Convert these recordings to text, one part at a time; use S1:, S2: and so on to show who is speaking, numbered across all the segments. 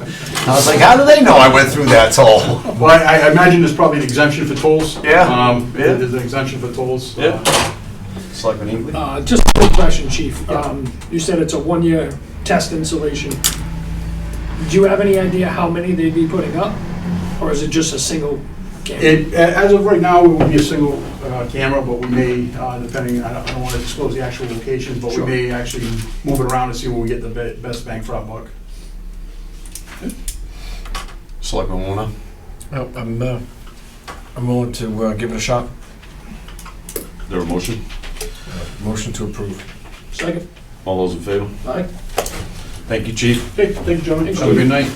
S1: I was like, how do they know I went through that toll?
S2: Well, I I imagine there's probably an exemption for tolls.
S1: Yeah,
S2: Um,
S1: yeah.
S2: There's an exemption for tolls. Uh,
S1: Yeah. Selectman Ingley?
S3: Uh, Just a quick question, chief. Um, You said it's a one-year test installation. Do you have any idea how many they'd be putting up? Or is it just a single camera?
S2: It, a- as of right now, it will be a single uh, camera, but we may, uh, depending, I don't- I don't want to disclose the actual location, but we
S3: Sure.
S2: may actually move it around and see where we get the be- best bang for our buck.
S1: Selectman Warner?
S4: No, I'm, uh, I'm willing to uh, give it a shot.
S5: There a motion?
S4: Uh, Motion to approve.
S3: Second?
S5: All those in favor?
S3: Aye.
S1: Thank you, chief.
S2: Okay, thank you, gentlemen.
S1: Have a good night.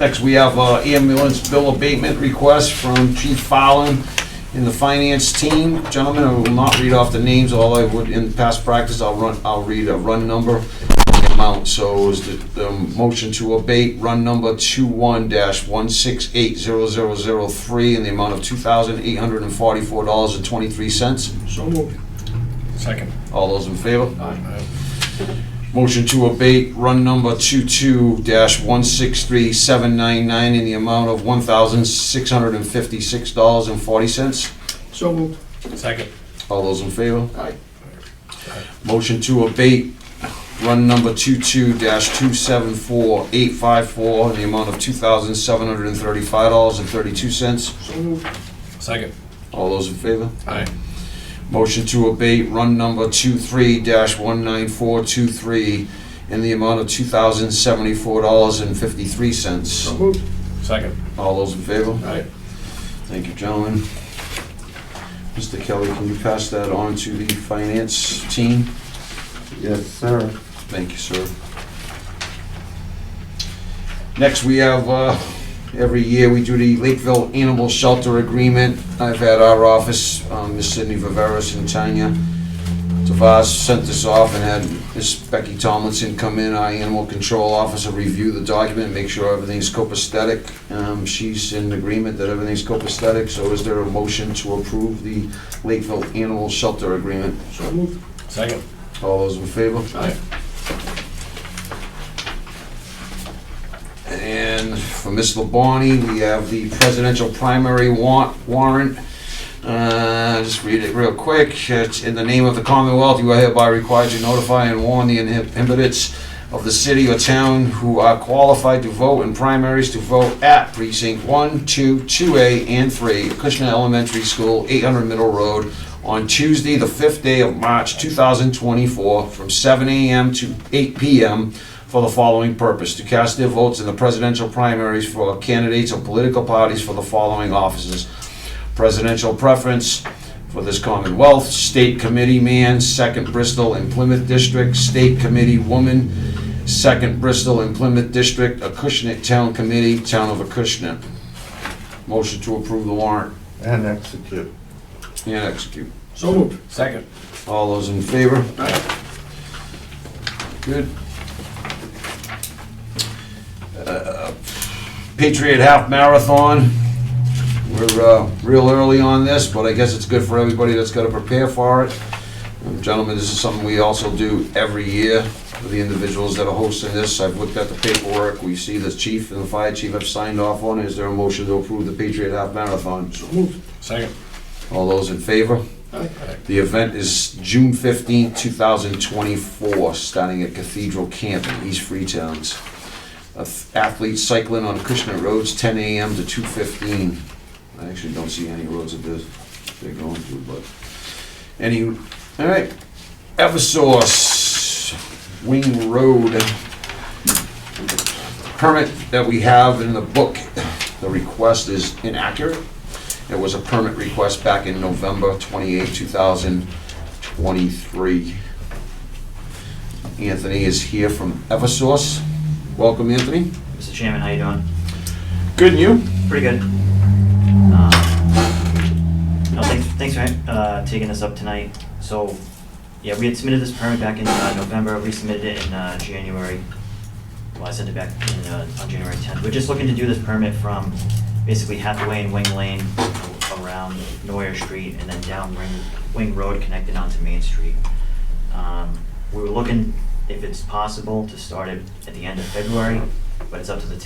S1: Next, we have uh, ambulance bill abatement request from Chief Fallon in the finance team. Gentlemen, I will not read off the names, all I would, in past practice, I'll run, I'll read a run number and the amount. So is the, the motion to abate run number two-one dash one-six-eight-zero-zero-zero-three in the amount of two thousand eight hundred and forty-four dollars and twenty-three cents.
S3: So moved.
S4: Second.
S1: All those in favor?
S4: Aye.
S1: Motion to abate run number 22-163799 in the amount of $1,656.40.
S3: So moved.
S4: Second.
S1: All those in favor?
S3: Aye.
S1: Motion to abate run number 22-274854 in the amount of $2,735.32.
S3: So moved.
S4: Second.
S1: All those in favor?
S4: Aye.
S1: Motion to abate run number 23-19423 in the amount of $2,074.53.
S3: So moved.
S4: Second.
S1: All those in favor?
S3: Aye.
S1: Thank you, gentlemen. Mr. Kelly, can you pass that on to the finance team?
S6: Yes, sir.
S1: Thank you, sir. Next, we have, uh, every year we do the Lakeville Animal Shelter Agreement. I've had our office, um, Ms. Sydney Viveras and Tanya Tavas sent this off and had Ms. Becky Tomlinson come in, our animal control officer, review the document, make sure everything's copacetic. Um, She's in agreement that everything's copacetic, so is there a motion to approve the Lakeville Animal Shelter Agreement?
S3: So moved.
S4: Second.
S1: All those in favor?
S3: Aye.
S1: And for Ms. Labonte, we have the presidential primary wa- warrant. Uh, Just read it real quick. It's In the name of the Commonwealth, you are hereby required to notify and warn the inhabitants of the city or town who are qualified to vote in primaries to vote at precinct 1, 2, 2A, and 3, Kushner Elementary School, 800 Middle Road, on Tuesday, the 5th day of March 2024, from 7 a.m. to 8 p.m for the following purpose, to cast their votes in the presidential primaries for candidates of political parties for the following offices. Presidential preference for this Commonwealth, State Committee Man, Second Bristol and Plymouth District, State Committee Woman, Second Bristol and Plymouth District, Acushnet Town Committee, Town of Acushnet. Motion to approve the warrant
S6: And execute.
S1: and execute.
S3: So moved.
S4: Second.
S1: All those in favor? Good. Uh, Patriot Half Marathon. We're uh, real early on this, but I guess it's good for everybody that's got to prepare for it. Um, Gentlemen, this is something we also do every year for the individuals that are hosting this. I've looked at the paperwork. We see the chief and the fire chief have signed off on it. Is there a motion to approve the Patriot Half Marathon?
S3: So moved.
S4: Second.
S1: All those in favor?
S3: Aye.
S1: The event is June fifteenth, two 2024, starting at Cathedral Camp in East Freetown's. Ath- Athletes cycling on Krishna Roads, 10 a.m. to 2:15. I actually don't see any roads that this- they're going through, but any, all right. Eversource, Wing Road. Permit that we have in the book, the request is inaccurate. It was a permit request back in November 28, 2023. Anthony is here from Eversource. Welcome, Anthony.
S7: Mr. Chairman, how you doing?
S1: Good, and you?
S7: Pretty good. Um, No, thanks, thanks for uh, taking this up tonight. So, yeah, we had submitted this permit back in uh, November, we submitted it in uh, January. Well, I sent it back in, uh, on January 10th. We're just looking to do this permit from basically Hathaway and Wing Lane around Neuer Street and then down Wing, Wing Road connected onto Main Street. Um, We were looking, if it's possible, to start it at the end of February, but it's up to the